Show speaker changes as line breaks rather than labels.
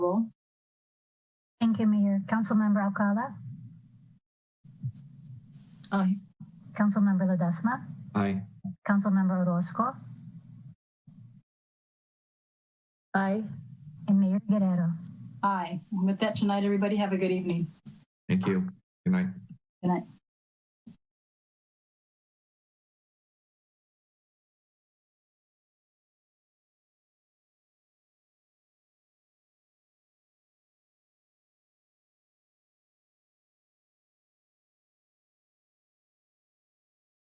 Give me your Councilmember Alcala,
Aye.
Councilmember Ledesma,
Aye.
Councilmember Orozco,
Aye.
and Mayor Guerrero.
Aye. And With that tonight, everybody have a good evening.
Thank you. Good night.